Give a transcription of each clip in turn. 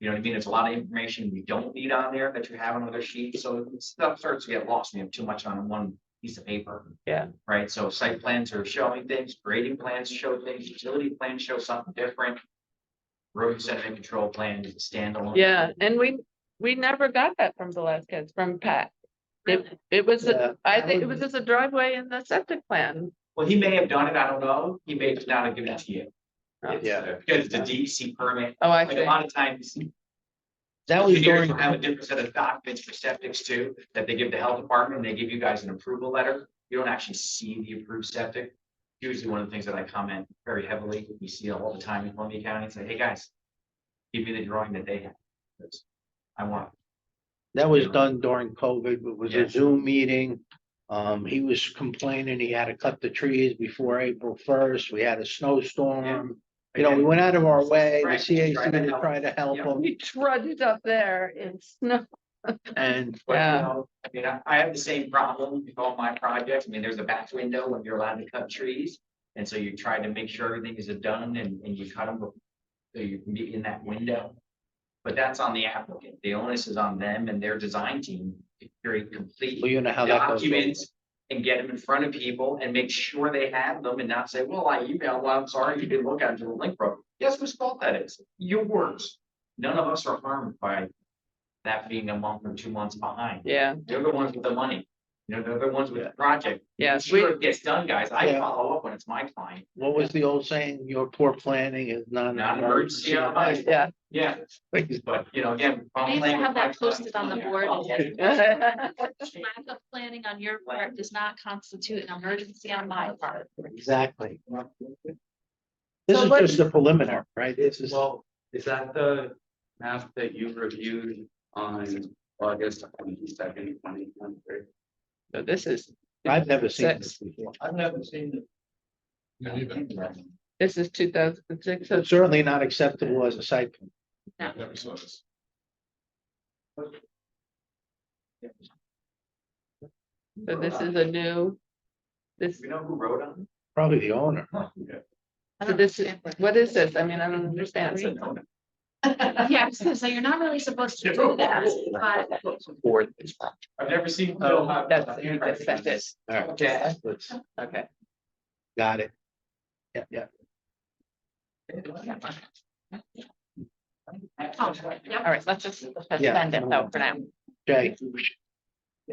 You know what I mean? There's a lot of information we don't need on there that you have on other sheets, so stuff starts to get lost when you have too much on one piece of paper. Yeah. Right, so site plans are showing things, grading plans show things, utility plans show something different. Road sediment control plan is a standalone. Yeah, and we, we never got that from Velazquez, from Pat. It, it was, Yeah, I that think it was would just a driveway in the septic plan. Well, he may have done it, I don't know, he may just not have given it to you. Oh, Yeah. Because the DEC E permit, Oh, I like a see. lot of times, That was engineers during, will have a different set of documents for septics too, that they give the health department, they give you guys an approval letter. You don't actually see the approved septic. Usually one of the things that I comment very heavily, you see all the time in Columbia County, say, hey, guys. Give me the drawing that they have. That's- I want, that was done during COVID, but was Yeah. a Zoom meeting. Um, he was complaining he had to cut the trees before April first. We had a snowstorm. You know, we went out of our way, the Right, CAC try to to help. try to help Yeah. him We trudged up there in snow. and But, you Yeah. know, I mean, I, I have the same problem with all my projects. I mean, there's a back window when you're allowed to cut trees. And so you try to make sure everything is done and, and you cut them. So you can be in that window. But that's on the applicant. The onus is on them and their design team to create well, complete you know how that goes. documents. And get them in front of people and make sure they have them and not say, well, I emailed, well, I'm sorry, you didn't look at it until the link broke. Guess whose fault that is? Yours. None of us are harmed by that being a month or two months behind. Yeah, They're the ones with the money. You know, they're the ones with the project. yes, we, Sure it gets done, guys. I Yeah. follow up when it's my client, What was the old saying? Your poor planning is not. an not an emergency. on my- yeah. Yeah, but you know, again. I used to have that posted on the board. Lack of planning on your part does not constitute an emergency on my part. Exactly. "Oh, So This is what- just the preliminary, right? This is, Well, is that the map that you reviewed on August twenty second, twenty twenty three? So this is, I've never seen this Six. before. I've never seen neither. it. this is two thousand and six. So certainly not acceptable as a site. plan. So this is a new, this, You know who wrote on Probably the owner. it? so this, is- what is this? I mean, I don't understand. Said no. Yeah, so so you're not really supposed to do that, but Board is. I've never seen. Oh, that's, that's, that's it. All right, Yeah. let's- Okay. Got it. Yeah, yeah. Oh, yeah. All right, let's just Yeah. suspend it though for now. Okay,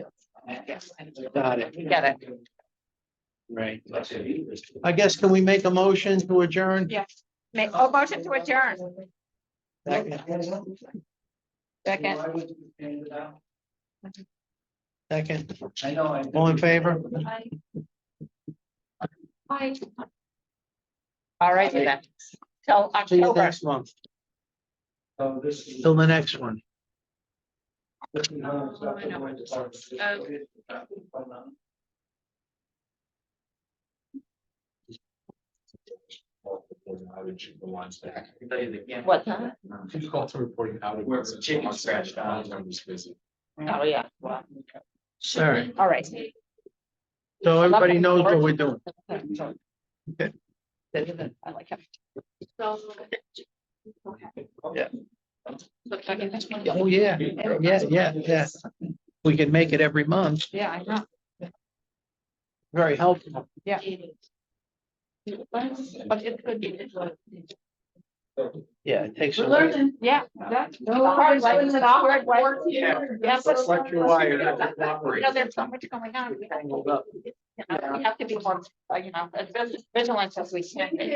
Got it. Got it. right. I guess, can we make a motion to adjourn? Yes. Make, oh, motion to adjourn. Second. I Second, know. I- all in favor? I. I. All right, then. Till See you October. next month, So Oh, this is- till the next one. this is how it's I know. going to start. Outage, the ones that. I can tell you they can't- What time? Who's also reporting out? Where the chicken uh, scratched out. Oh, yeah. All right, All right. so everybody knows what we're doing. I like him. So. Yeah. Look, I can just one. Oh, yeah, yeah, yeah, yeah. We can make it every month, Yeah, I know. very helpful. But it could be. Yeah, it takes. a while. Learning. Yeah. that's the hard way, it's the hard way. Yeah. Yes. It's like your wire. You know, there's so much going on. We have to- you know, We have to be more, uh, you know, as vigilant as we can be.